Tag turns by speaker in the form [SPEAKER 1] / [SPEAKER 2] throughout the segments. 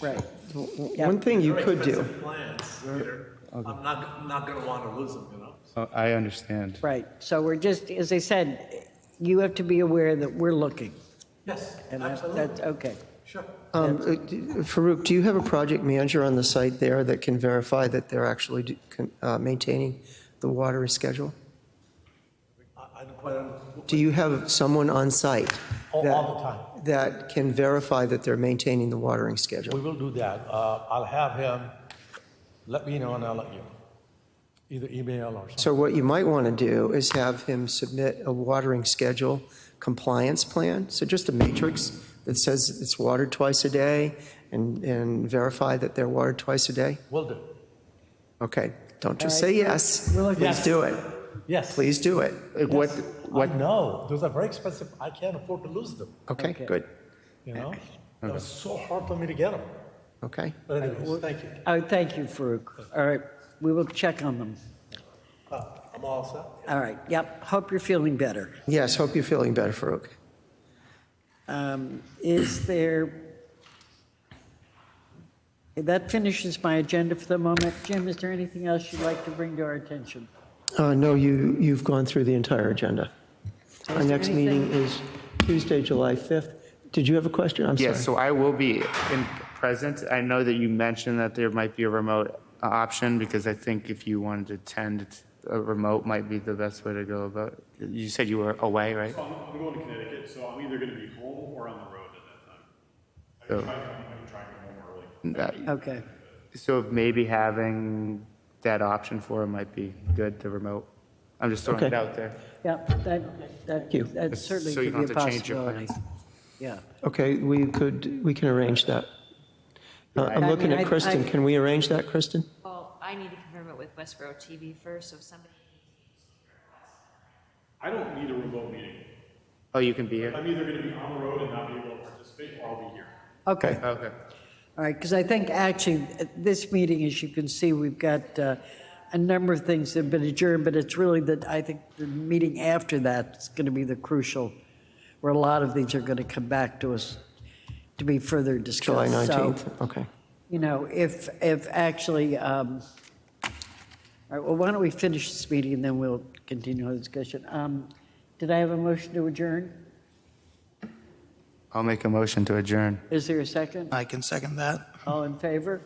[SPEAKER 1] Right. W- w-
[SPEAKER 2] Yep.
[SPEAKER 1] One thing you
[SPEAKER 3] They're
[SPEAKER 1] could do,
[SPEAKER 3] expensive Plans, Peter. I'm not, not gonna wanna lose them, you know?
[SPEAKER 4] Oh, I understand.
[SPEAKER 2] Right, so we're just, as I said, you have to be aware that we're looking,
[SPEAKER 3] Yes,
[SPEAKER 2] and that's,
[SPEAKER 3] absolutely,
[SPEAKER 2] that's, okay.
[SPEAKER 3] sure.
[SPEAKER 5] Um, uh, d- Farouk, do you have a project manager on the site there that can verify that they're actually d- con- uh, maintaining the water schedule?
[SPEAKER 3] I, I don't quite, un-
[SPEAKER 5] Do you have someone on site
[SPEAKER 6] All,
[SPEAKER 5] that-
[SPEAKER 6] all the time.
[SPEAKER 5] that can verify that they're maintaining the watering
[SPEAKER 6] We
[SPEAKER 5] schedule?
[SPEAKER 6] will do that. Uh, I'll have him, let me know and I'll let you. know. Either email or something.
[SPEAKER 5] So what you might want to do is have him submit a watering schedule compliance plan, so just a matrix that says it's watered twice a day and, and verify that they're watered twice a day?
[SPEAKER 6] Will do.
[SPEAKER 5] Okay, don't just
[SPEAKER 2] All
[SPEAKER 5] say
[SPEAKER 2] right.
[SPEAKER 5] yes.
[SPEAKER 2] We'll look-
[SPEAKER 5] Please do it.
[SPEAKER 6] Yes.
[SPEAKER 5] Please do it.
[SPEAKER 4] Like, What,
[SPEAKER 2] Oh,
[SPEAKER 4] what,
[SPEAKER 6] No, those are very expensive. I can't afford to lose them,
[SPEAKER 5] Okay,
[SPEAKER 2] Okay.
[SPEAKER 5] good.
[SPEAKER 6] you know? It was so hard for me to get them.
[SPEAKER 5] Okay.
[SPEAKER 6] But anyways, thank you.
[SPEAKER 2] Oh, thank you, Farouk. All right, we will check on them.
[SPEAKER 3] uh, I'm all set.
[SPEAKER 2] All right, yep, hope you're feeling better.
[SPEAKER 5] Yes, hope you're feeling better, Farouk.
[SPEAKER 2] Um, Is there, that finishes my agenda for the moment. Jim, is there anything else you'd like to bring to our attention?
[SPEAKER 5] Uh, No, you, you've gone through the entire agenda. Our
[SPEAKER 2] there
[SPEAKER 5] next meeting
[SPEAKER 2] anything-
[SPEAKER 5] is Tuesday, July 5th. Did you have a question? I'm sorry.
[SPEAKER 4] yes, so I will be in present. I know that you mentioned that there might be a remote uh, option because I think if you wanted to attend, a remote might be the best way to go about. it. You said you were away, right?
[SPEAKER 7] So I'm, I'm going to Connecticut, so I'm either gonna be home or on the road at that time. I
[SPEAKER 4] Oh.
[SPEAKER 7] can try, and come- I can try and come home early.
[SPEAKER 4] That-
[SPEAKER 2] Okay,
[SPEAKER 4] Uh, So maybe having that option for it might be good, the remote. I'm just throwing it
[SPEAKER 5] Okay.
[SPEAKER 4] out there.
[SPEAKER 2] yep, that,
[SPEAKER 5] you.
[SPEAKER 2] that, that certainly
[SPEAKER 4] So you
[SPEAKER 2] could be a
[SPEAKER 4] don't have to change your
[SPEAKER 2] possibility. Yeah.
[SPEAKER 5] Okay, we could, we can arrange that. Uh, I'm
[SPEAKER 2] I
[SPEAKER 5] looking
[SPEAKER 2] mean,
[SPEAKER 5] at
[SPEAKER 2] I-
[SPEAKER 5] Kristen.
[SPEAKER 2] I-
[SPEAKER 5] Can we arrange that, Kristen?
[SPEAKER 8] Well, I need to confirm it with Westboro TV first, so if somebody,
[SPEAKER 7] I don't need a remote meeting.
[SPEAKER 4] Oh, you can be here?
[SPEAKER 7] I'm either gonna be on the road and not be able to participate, or I'll be here.
[SPEAKER 2] Okay,
[SPEAKER 4] Okay.
[SPEAKER 2] all right, because I think actually, at this meeting, as you can see, we've got uh, a number of things that have been adjourned, but it's really that, I think, the meeting after that is going to be the crucial, where a lot of these are going to come back to us to be further discussed.
[SPEAKER 5] July
[SPEAKER 2] So,
[SPEAKER 5] 19th? Okay.
[SPEAKER 2] You know, if, if actually, um, all right, well, why don't we finish this meeting, and then we'll continue the discussion. Um, Did I have a motion to adjourn?
[SPEAKER 4] I'll make a motion to adjourn.
[SPEAKER 2] Is there a second?
[SPEAKER 9] I can second that.
[SPEAKER 2] All in favor?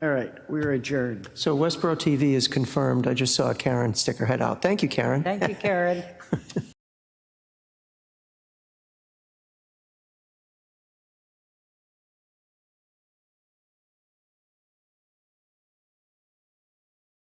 [SPEAKER 2] All right, we're adjourned.
[SPEAKER 5] So Westboro TV is confirmed. I just saw Karen stick her head out. Thank you, Karen.
[SPEAKER 2] Thank you, Karen.